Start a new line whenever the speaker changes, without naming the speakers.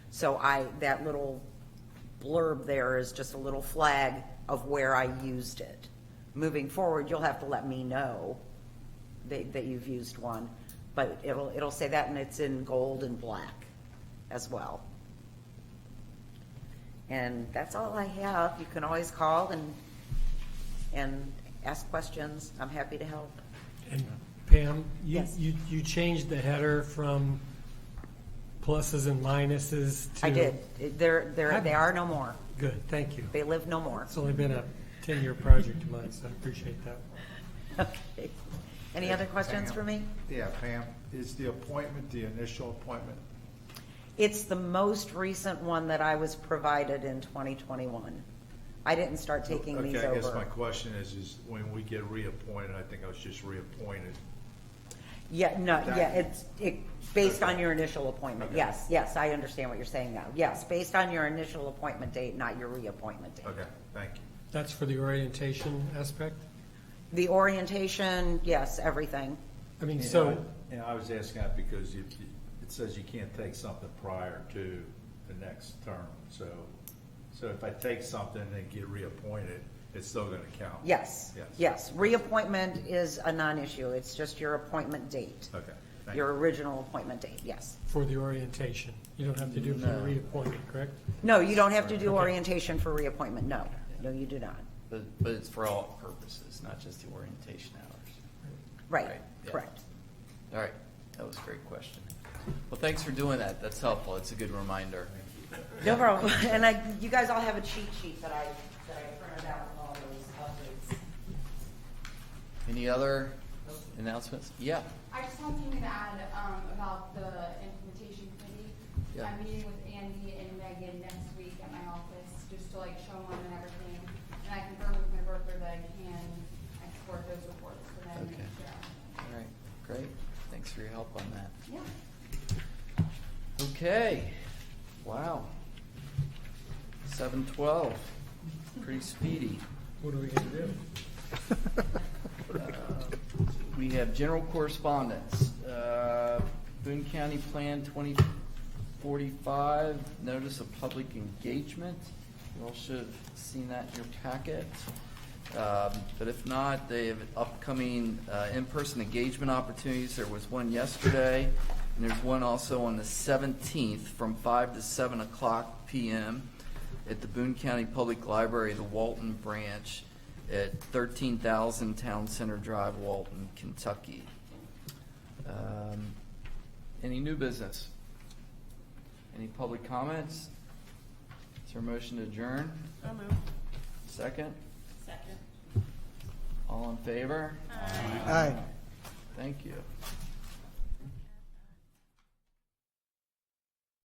So I, that little blurb there is just a little flag of where I used it. Moving forward, you'll have to let me know that, that you've used one, but it'll, it'll say that, and it's in gold and black as well. And that's all I have. You can always call and, and ask questions. I'm happy to help.
And Pam, you,
Yes.
you, you changed the header from pluses and minuses to.
I did. They're, they're, they are no more.
Good, thank you.
They live no more.
It's only been a ten-year project of mine, so I appreciate that.
Okay. Any other questions for me?
Yeah, Pam, is the appointment the initial appointment?
It's the most recent one that I was provided in 2021. I didn't start taking these
Okay, I guess my
over.
question is, is when we get reappointed, I think I was just reappointed.
Yeah, no, yeah, it's, it, based on
Okay.
your initial appointment,
Okay.
yes, yes, I understand what you're saying now. Yes, based on your initial appointment date, not your reappointment date.
Okay, thank you.
That's for the orientation aspect?
The orientation, yes, everything.
I mean,
And
so,
I- And I was asking that because if, you- it says you can't take something prior to the next term, so, so if I take something and get reappointed, it's still gonna count?
Yes,
Yes.
yes. Reappointment is a non-issue. It's just your appointment date.
Okay, thank
Your
you.
original appointment date, yes.
for the orientation, you don't have to do it for the
No.
reappointment, correct?
No, you don't have to do
Okay.
orientation for reappointment, no. No, you do not.
But, but it's for all purposes, not just the orientation hours.
Right,
Right, yeah.
correct.
All right, that was a great question. Well, thanks for doing that, that's helpful, it's a good reminder.
No problem. And I, you guys all have a cheat sheet that I, that I printed out with all those updates.
Any other announcements? Yeah,
I just want something to add um, about the implementation committee.
Yeah.
I'm meeting with Andy and Megan next week at my office, just to like show them and everything. And I confirmed with my broker that I can export those reports for them. and
Okay.
share.
all right, great, thanks for your help on that.
Yeah.
Okay, wow. Seven twelve, pretty speedy.
What are we gonna do?
We have general correspondence. Uh, Boone County Plan 2045, notice of public engagement. You all should have seen that in your packet. Um, But if not, they have upcoming uh, in-person engagement opportunities. There was one yesterday, and there's one also on the 17th from 5 to 7 o'clock PM at the Boone County Public Library, the Walton Branch, at 13,000 Town Center Drive, Walton, Kentucky. Um, Any new business? Any public comments? Is there a motion to adjourn?
So moved.
Second?
Second.
All in favor?
Aye.
Thank you.